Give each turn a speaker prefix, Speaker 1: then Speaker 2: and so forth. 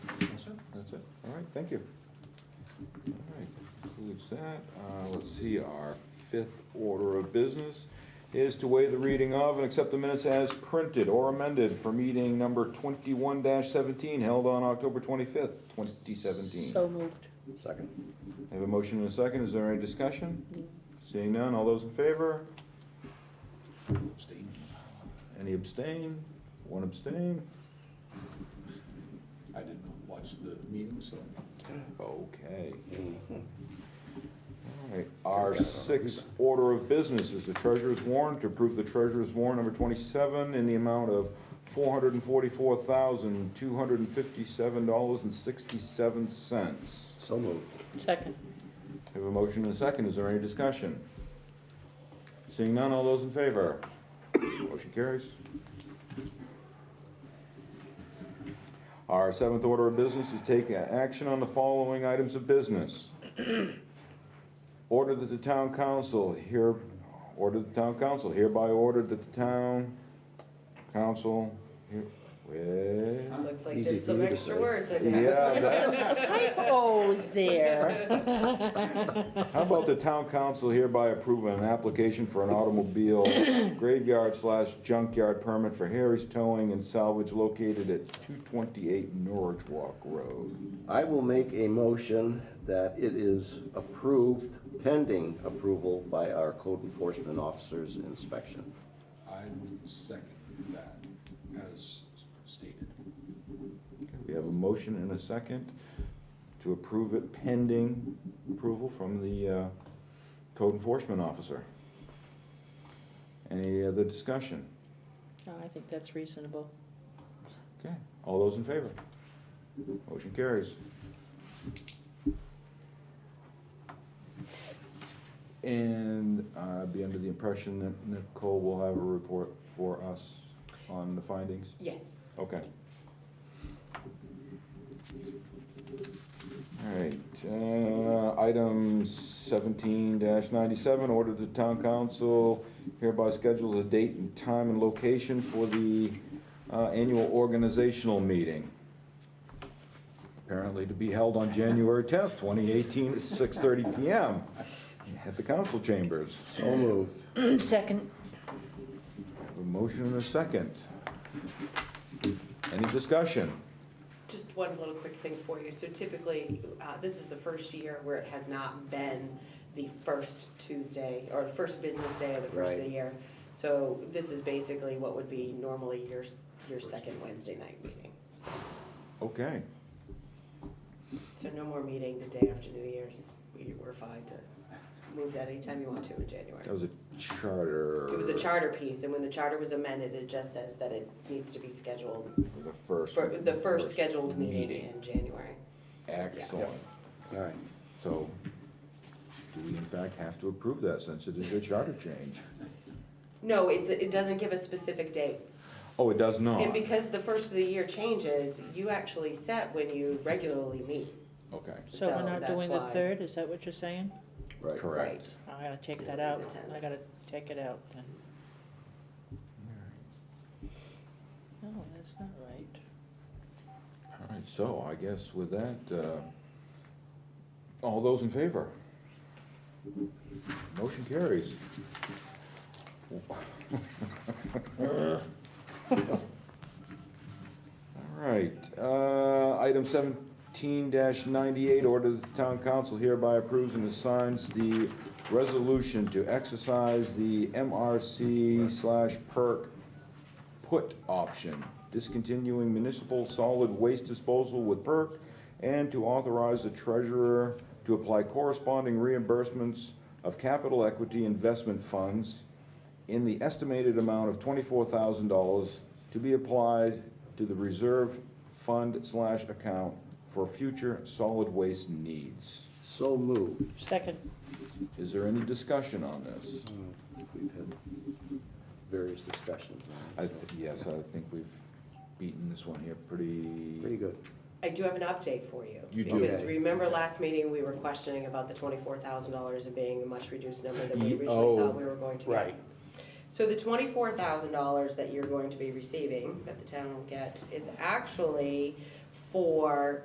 Speaker 1: Uh, Thank you. All right, concludes that. Uh, Let's see, our fifth order of business is to waive the reading of and accept the minutes as printed or amended for meeting number twenty-one seventeen held on October twenty-fifth, twenty seventeen.
Speaker 2: So moved.
Speaker 3: Second.
Speaker 1: I have a motion and a second. Is there any discussion? Seeing none, all those in favor?
Speaker 3: Abstain.
Speaker 1: Any abstain? One abstain?
Speaker 3: I did not watch the meeting, so.
Speaker 1: Okay. All right, our sixth order of business is the treasurer's warrant to approve the treasurer's warrant number 27 in the amount of $444,257.67.
Speaker 3: So moved.
Speaker 2: Second.
Speaker 1: We have a motion and a second. Is there any discussion? Seeing none, all those in favor? Motion carries. Our seventh order of business is take action on the following items of business. Order that the town council here, order the town council hereby ordered that the town council, here- wait.
Speaker 4: Looks like
Speaker 3: Easy
Speaker 4: there's
Speaker 3: for
Speaker 4: some
Speaker 3: you to
Speaker 4: extra
Speaker 3: say.
Speaker 4: words in there.
Speaker 1: Yeah, that-
Speaker 2: Typos Oh, there.
Speaker 1: How about the town council hereby approve an application for an automobile graveyard slash junkyard permit for Harry's Towing and Salvage located at 228 Norwich Walk Road?
Speaker 5: I will make a motion that it is approved pending approval by our code enforcement officer's inspection.
Speaker 3: I second that as stated.
Speaker 1: We have a motion and a second to approve it pending approval from the uh, code enforcement officer. Any other discussion?
Speaker 2: No, I think that's reasonable.
Speaker 1: Okay, all those in favor? Motion carries. And I'd be under the impression that Nicole will have a report for us on the findings?
Speaker 4: Yes.
Speaker 1: Okay. All right, uh, item seventeen ninety-seven, order the town council hereby schedules a date and time and location for the, uh, annual organizational meeting. Apparently to be held on January tenth, twenty eighteen, at six thirty PM at the council chambers.
Speaker 5: So moved.
Speaker 2: Second.
Speaker 1: A motion and a second. Any discussion?
Speaker 4: Just one little quick thing for you. So typically, uh, this is the first year where it has not been the first Tuesday or the first business day of the first of the
Speaker 5: Right.
Speaker 4: year. So this is basically what would be normally your, s- your second Wednesday night meeting. So-
Speaker 1: Okay.
Speaker 4: So no more meeting the day after New Year's. We were fine to move that anytime you want to in January.
Speaker 1: That was a charter.
Speaker 4: It was a charter piece, and when the charter was amended, it just says that it needs to be scheduled
Speaker 1: For the first.
Speaker 4: for the first scheduled meeting
Speaker 1: meeting.
Speaker 4: in January.
Speaker 1: Excellent.
Speaker 5: All right.
Speaker 1: So do we in fact have to approve that since it is a charter change?
Speaker 4: No, it's, it doesn't give a specific date.
Speaker 1: Oh, it does not?
Speaker 4: And because the first of the year changes, you actually set when you regularly meet.
Speaker 1: Okay,
Speaker 2: So we're
Speaker 4: So
Speaker 2: not
Speaker 4: that's
Speaker 2: doing the
Speaker 4: why.
Speaker 2: third, is that what you're saying?
Speaker 5: Right.
Speaker 1: correct.
Speaker 2: I gotta take that
Speaker 4: The
Speaker 2: out.
Speaker 4: tenth.
Speaker 2: I gotta take it out then. No, that's not right.
Speaker 1: All right, so I guess with that, uh, all those in favor? Motion carries. All right, uh, item seventeen ninety-eight, order that the town council hereby approves and assigns the resolution to exercise the MRC slash perk put option, discontinuing municipal solid waste disposal with PERC, and to authorize the treasurer to apply corresponding reimbursements of capital equity investment funds in the estimated amount of twenty-four thousand dollars to be applied to the reserve fund slash account for future solid waste needs.
Speaker 5: So moved.
Speaker 2: Second.
Speaker 1: Is there any discussion on this?
Speaker 5: We've had various discussions. on
Speaker 1: I,
Speaker 5: it,
Speaker 1: th-
Speaker 5: so
Speaker 1: yes, I think we've beaten this one here pretty.
Speaker 5: Pretty good.
Speaker 4: I do have an update for you.
Speaker 1: You do.
Speaker 4: Because
Speaker 5: Okay.
Speaker 4: remember last meeting, we were questioning about the twenty-four thousand dollars and being a much reduced number that we
Speaker 1: Ye-
Speaker 4: originally
Speaker 1: oh,
Speaker 4: thought we were going to get.
Speaker 3: right.
Speaker 4: So the twenty-four thousand dollars that you're going to be receiving, that the town will get, is actually for